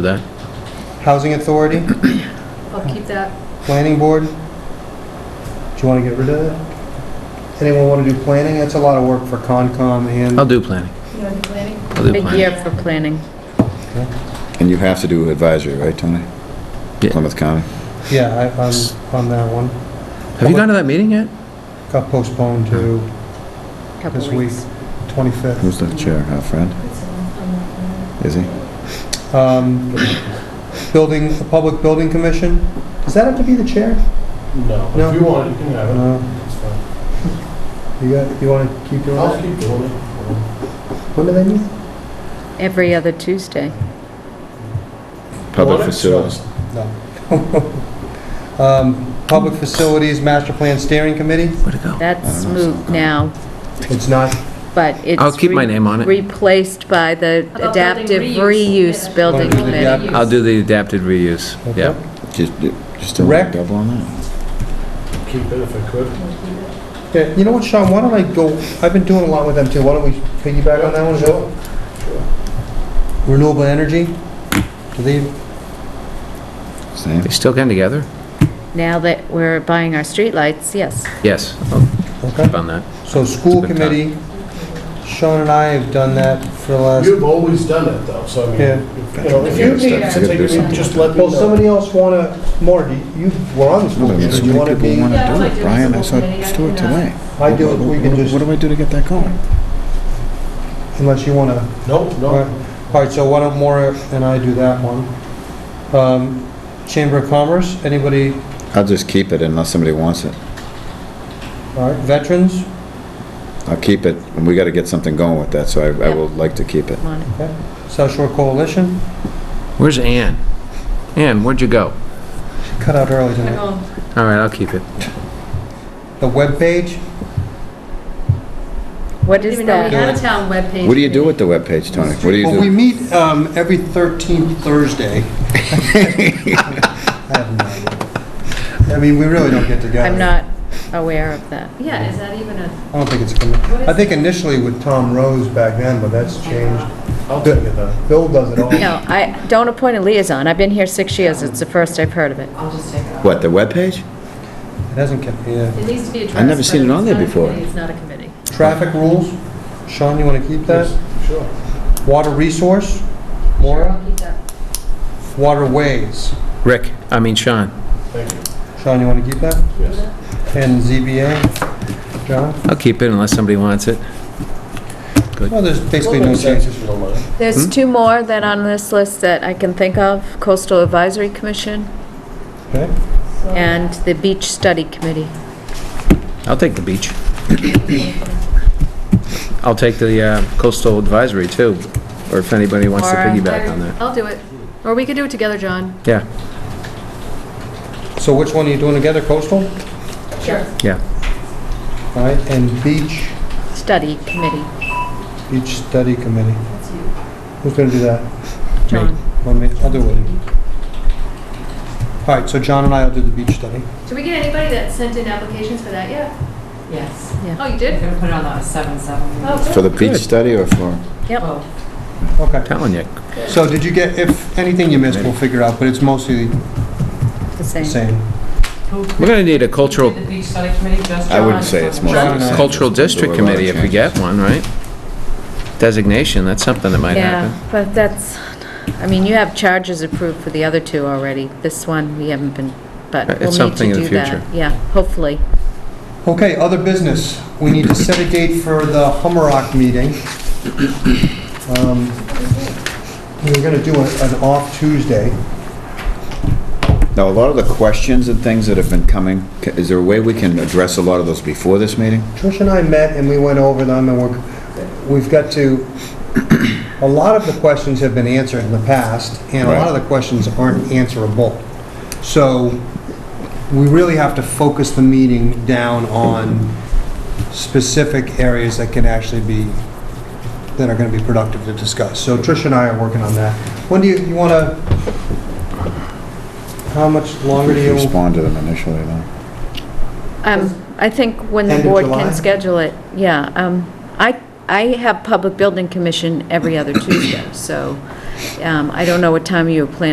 for that. Housing Authority, I'll keep that. Planning Board. Do you want to get rid of that? Anyone want to do planning? That's a lot of work for Concom I'll and, do planning. You want to do planning? I'll do Big planning. year for planning. And you have to do advisory, right, Tony? Yeah. Plymouth County? yeah, I- I'm on that one. Have you gone to that meeting yet? Got postponed to Couple this week, weeks. 25th. Who's the chair, our friend? Is he? Um, Building, the Public Building Commission, does that have to be the chair? No, No. if you want, it, you can have it. No. It's fine. You got, you want to keep doing I'll that? keep doing it. When do they meet? Every other Tuesday. Public Well, it's facilities. Um, Public Facilities Master Plan Steering Committee? Where'd it go? That's don't know, moved now, It's not, but it's. I'll keep my re- name on it. Replaced by the about adaptive building reuse? reuse building Wanna do the committee. adaptive- I'll do the adapted reuse. okay. Yeah. Just, just don't Rec. double on that. Keep it if I could. Yeah, You know what, Sean, why don't I go, I've been doing a lot with them too, why don't we piggyback on that one as well? Renewable energy, do they, Same. They still getting together? Now that we're buying our streetlights, yes. Yes, I'll okay. keep on that. So school It's been committee, Sean and I have done that for the last, You've always done it though, so I mean, Uh, Yeah. if- you know, if you Yeah, need it's to gotta take do it, something. just let me well, know. somebody else wanna, more, you were on the school Well, committee, so you many wanna people be? want Yeah, I might to do do it. it Brian, I as a saw little Stuart thing, I today. I do it, we can What- just- What do I do to get that going? Unless you wanna, No, all no, right, so why don't Maura and I do that one? Um, Chamber of Commerce, anybody, I'll just keep it unless somebody wants it. all right, veterans, I'll keep it, and we gotta get something going with that, so I, I Yep. would like to keep it. Come on. South Shore Coalition, Where's Ann? Ann, where'd you go? cut out early I tonight. go, All right, I'll keep it. The webpage, What didn't is even know we that? had a town webpage. What do you do with the webpage, Tony? What do you well, we do? meet um, every 13th Thursday. I have no idea. I mean, we really don't get together. I'm not aware of that. Yeah, is that even a, I don't think it's, commi- What is I think it? initially with Tom Rose back then, but that's changed. I'll take it then. Bill does it all. No, I don't appoint a liaison. I've been here six years. It's the first I've heard of it. What, the webpage? It hasn't kept, yeah. it needs to be addressed. I've never seen but it on it's there not a before. committee, It's not a committee. Traffic rules, Sean, you want to keep that? Yes, Sure. Water resource, Sure, Maura? I'll keep that. Waterways, Rick, I mean Sean, Thank you. Sean, you want to keep that? Yes. And ZBA, John? I'll keep it unless somebody wants it. Well, there's basically no Well, changes. if you don't mind. There's Hmm? two more that on this list that I can think of, Coastal Advisory Commission Okay. Oh. and the Beach Study Committee. I'll take the beach. I'll take the uh, coastal advisory too, or if anybody wants to Or, uh, piggyback on that. I'll do it. Or we could do it together, John. Yeah, So which one are you doing together, coastal? Sure. yeah. All right, and beach, Study Committee, beach study committee. Who's going to do that? John. Let me, I'll do it. All right, so John and I will do the beach study. Did we get anybody that sent in applications for that yet? Yes. Oh, you We're did? gonna put it on the seven, seven. Oh, For cool. the beach study or for? Yep, Oh, Okay, Telling you, so did you get, if anything you missed, we'll figure out, but it's mostly the the same. same. who- we're gonna need a cultural, Did The beach study committee just. I wouldn't say it's more. John and I. cultural district committee if we get one, right? Designation, that's something that might happen. Yeah, but that's, I mean, you have charges approved for the other two already. This one, we haven't been, but Right, it's we'll need something to in the do that. future. Yeah, hopefully. Okay, other business. We need to set a date for the Hummerock meeting. Um, We were going to do a- an off Tuesday. Now, a lot of the questions and things that have been coming, ca- is there a way we can address a lot of those before this meeting? Trish and I met and we went over them and we're, we've got to, a lot of the questions have been answered in the past and a lot of the questions aren't answerable. So we really have to focus the meeting down on specific areas that can actually be, that are going to be productive to discuss. So Trish and I are working on that. When do you, you want to, how much longer do you? Respond to them initially, though. Um, I think when the End of board July? can schedule it, yeah. Um, I, I have Public Building Commission every other Tuesday, so Um, I don't know what time you were planning